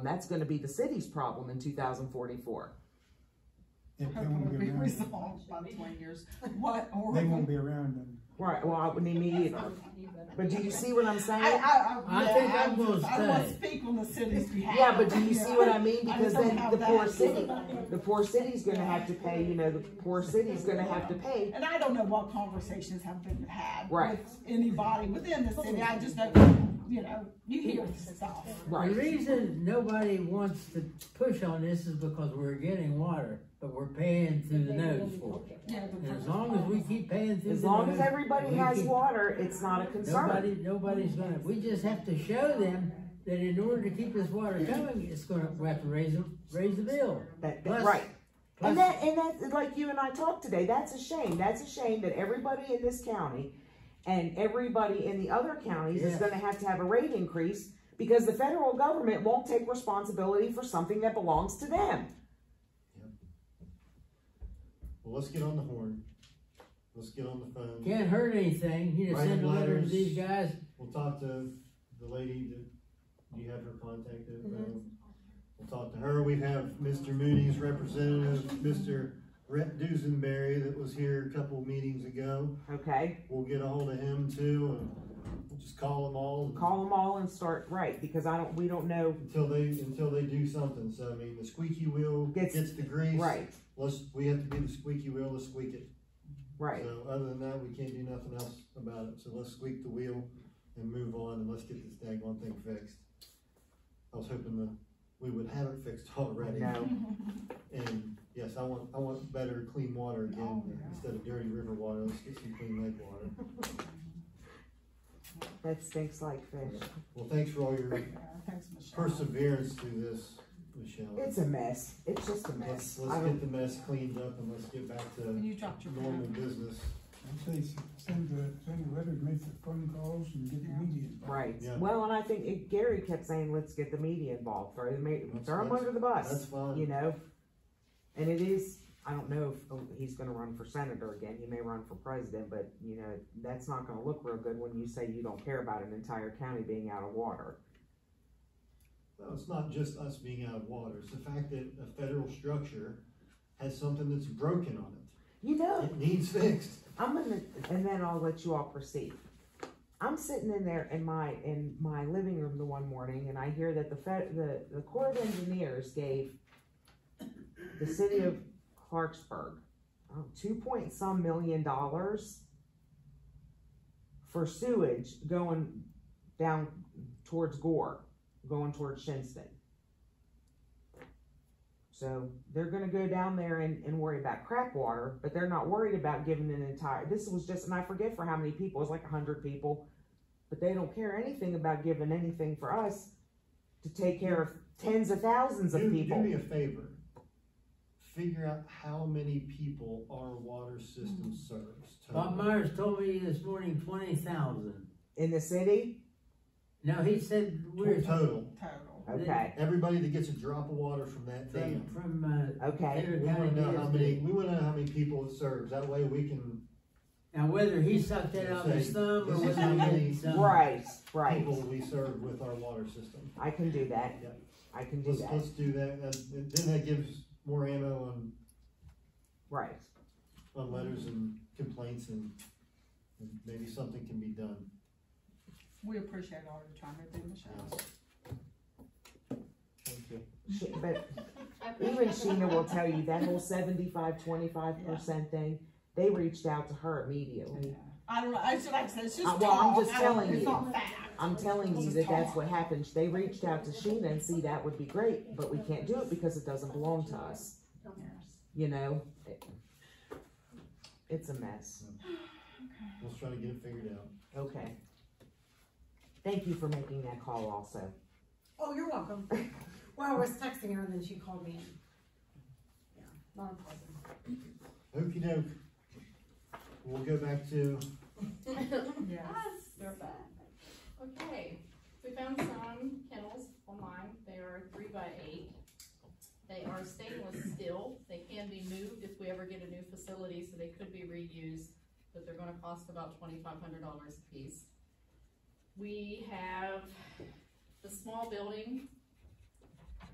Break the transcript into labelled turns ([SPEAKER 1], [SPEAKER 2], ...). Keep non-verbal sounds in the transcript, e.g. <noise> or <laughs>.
[SPEAKER 1] That's gonna be the city's problem in two thousand forty-four.
[SPEAKER 2] If they
[SPEAKER 3] Hope
[SPEAKER 2] won't
[SPEAKER 3] it'll
[SPEAKER 2] be
[SPEAKER 3] be
[SPEAKER 2] around, then-
[SPEAKER 3] resolved by twenty years, what, or.
[SPEAKER 2] they won't be around then.
[SPEAKER 1] Right, well, I wouldn't need either. But do you see what I'm
[SPEAKER 3] I,
[SPEAKER 1] saying?
[SPEAKER 3] I, I.
[SPEAKER 4] I
[SPEAKER 3] yeah,
[SPEAKER 4] think I'm
[SPEAKER 3] I'm
[SPEAKER 4] gonna
[SPEAKER 3] just- I don't wanna
[SPEAKER 4] stay.
[SPEAKER 3] speak on the city's behalf.
[SPEAKER 1] Yeah, but do you see what I mean?
[SPEAKER 3] I
[SPEAKER 1] Because
[SPEAKER 3] just
[SPEAKER 1] then
[SPEAKER 3] don't
[SPEAKER 1] the
[SPEAKER 3] have
[SPEAKER 1] poor
[SPEAKER 3] that.
[SPEAKER 1] city, the poor city's gonna have to pay, you know, the poor city's gonna have to pay.
[SPEAKER 3] <laughs> And I don't know what conversations have been had.
[SPEAKER 1] Right.
[SPEAKER 3] With anybody within the city, I just know, you know, you hear this stuff.
[SPEAKER 4] The
[SPEAKER 1] Right,
[SPEAKER 4] reason nobody wants to push on this is because we're getting water, but we're paying through the nose for it.
[SPEAKER 3] Yeah,
[SPEAKER 4] And as long as we keep paying through
[SPEAKER 1] as
[SPEAKER 4] the
[SPEAKER 1] long
[SPEAKER 4] nose.
[SPEAKER 1] as everybody
[SPEAKER 4] we
[SPEAKER 1] has
[SPEAKER 4] keep-
[SPEAKER 1] water, it's not a concern.
[SPEAKER 4] Nobody, nobody's gonna, we just have to show them that in order to keep this water coming, it's gonna, we have to raise, the- raise the bill.
[SPEAKER 1] That, that,
[SPEAKER 4] Plus-
[SPEAKER 1] right. And
[SPEAKER 4] plus-
[SPEAKER 1] that, and that's like you and I talked today, that's a shame. That's a shame that everybody in this county and everybody in the other counties is
[SPEAKER 4] Yeah.
[SPEAKER 1] gonna have to have a rate increase because the federal government won't take responsibility for something that belongs to them.
[SPEAKER 5] Well, let's get on the horn. Let's get on the phone.
[SPEAKER 4] Can't hurt anything, you know, send a letter to these guys,
[SPEAKER 5] We'll talk to the lady that, do you have her contact info? We'll talk to her. We have Mr. Moody's representative, Mr. Rhett Dusenberry that was here a couple meetings ago.
[SPEAKER 1] Okay,
[SPEAKER 5] We'll get a hold of him too and we'll just call them all. and-
[SPEAKER 1] call them all and start right because I don't, we don't know.
[SPEAKER 5] Until they, until they do something. So I mean, the squeaky wheel
[SPEAKER 1] Gets-
[SPEAKER 5] gets the grease.
[SPEAKER 1] Right,
[SPEAKER 5] Let's, we have to be the squeaky wheel, let's squeak it.
[SPEAKER 1] right.
[SPEAKER 5] So other than that, we can't do nothing else about it, so let's squeak the wheel and move on and let's get this daggone thing fixed. I was hoping that we would have it fixed <laughs> already.
[SPEAKER 1] No.
[SPEAKER 5] And yes, I want, I want better clean water
[SPEAKER 1] Oh,
[SPEAKER 5] again, instead of dirty river water, let's get some clean lake water.
[SPEAKER 1] That stinks like fish.
[SPEAKER 5] Well, thanks for all your
[SPEAKER 3] Thanks, Michelle.
[SPEAKER 5] perseverance through this, Michelle.
[SPEAKER 1] It's a mess. It's just a
[SPEAKER 5] Let's,
[SPEAKER 1] mess. I
[SPEAKER 5] let's
[SPEAKER 1] don't,
[SPEAKER 5] get the mess cleaned up and let's get back to
[SPEAKER 3] You dropped your.
[SPEAKER 5] normal business.
[SPEAKER 2] I say, s- send the, send the letters, make the phone calls and get the
[SPEAKER 3] Yeah.
[SPEAKER 2] media involved.
[SPEAKER 1] right.
[SPEAKER 5] Yeah.
[SPEAKER 1] Well, and I think it, Gary kept saying, let's get the media involved, throw them,
[SPEAKER 5] That's-
[SPEAKER 1] throw them
[SPEAKER 5] that's-
[SPEAKER 1] under the bus.
[SPEAKER 5] That's fine.
[SPEAKER 1] you know? And it is, I don't know if oh, he's gonna run for senator again, he may run for president, but, you know, that's not gonna look real good when you say you don't care about an entire county being out of water.
[SPEAKER 5] No, it's not just us being out of water, it's the fact that a federal structure has something that's broken on it.
[SPEAKER 1] You know,
[SPEAKER 5] It needs fixed.
[SPEAKER 1] I'm gonna, and then I'll let you all proceed. I'm sitting in there in my, in my living room the one morning, and I hear that the Fed, the, the Corps of Engineers gave the city of Clarksburg, um, two point some million dollars for sewage going down towards Gore, going towards Shinston. So they're gonna go down there and, and worry about crap water, but they're not worried about giving an entire, this was just, and I forget for how many people, it's like a hundred people. But they don't care anything about giving anything for us to take care of tens of thousands
[SPEAKER 5] Do,
[SPEAKER 1] of
[SPEAKER 5] do
[SPEAKER 1] people.
[SPEAKER 5] me a favor. Figure out how many people our water system serves.
[SPEAKER 4] Bob
[SPEAKER 5] total.
[SPEAKER 4] Myers told me this morning twenty thousand.
[SPEAKER 1] In the city?
[SPEAKER 4] No, he said we're,
[SPEAKER 5] Total.
[SPEAKER 3] Total.
[SPEAKER 1] Okay,
[SPEAKER 5] Everybody that gets a drop of water from that
[SPEAKER 4] from,
[SPEAKER 5] dam.
[SPEAKER 4] from, uh,
[SPEAKER 1] okay.
[SPEAKER 5] We
[SPEAKER 4] Taylor
[SPEAKER 5] wanna
[SPEAKER 4] County
[SPEAKER 5] know how many,
[SPEAKER 4] DSD.
[SPEAKER 5] we wanna know how many people it serves, that way we can,
[SPEAKER 4] Now, whether he sucked that out of his thumb or
[SPEAKER 5] This is
[SPEAKER 4] whether
[SPEAKER 5] how
[SPEAKER 4] he
[SPEAKER 5] many-
[SPEAKER 4] did something.
[SPEAKER 1] Right, right.
[SPEAKER 5] people we serve with our water system.
[SPEAKER 1] I can do that.
[SPEAKER 5] Yeah.
[SPEAKER 1] I can do
[SPEAKER 5] Let's,
[SPEAKER 1] that.
[SPEAKER 5] let's do that, that, then that gives more ammo on
[SPEAKER 1] Right.
[SPEAKER 5] on uh, letters and complaints and, and maybe something can be done.
[SPEAKER 3] We appreciate all you're trying to do, Michelle.
[SPEAKER 1] Thank you. She- But even Sheena will tell you that whole seventy-five, twenty-five percent thing, they reached out to her immediately.
[SPEAKER 3] I don't know, I should, like I said, it's just
[SPEAKER 1] Uh, well, I'm
[SPEAKER 3] talk.
[SPEAKER 1] just
[SPEAKER 3] I don't-
[SPEAKER 1] telling
[SPEAKER 3] It's
[SPEAKER 1] you.
[SPEAKER 3] not fact.
[SPEAKER 1] I'm telling you that that's what happened. They reached out to Sheena and see that would be great, but we can't do it because it doesn't belong to us, you know? It- It's a mess.
[SPEAKER 5] Let's try to get it figured out.
[SPEAKER 1] Okay. Thank you for making that call also.
[SPEAKER 6] Oh, you're welcome. Well, I was texting her and then she called me in. Yeah, Not a
[SPEAKER 5] Okey doke. We'll go back to,
[SPEAKER 3] Yes.
[SPEAKER 7] Us.
[SPEAKER 3] They're back.
[SPEAKER 7] Okay, we found some kennels online, they are three by eight. They are stainless steel, they can be moved if we ever get a new facility, so they could be reused, but they're gonna cost about twenty-five hundred dollars a piece. We have the small building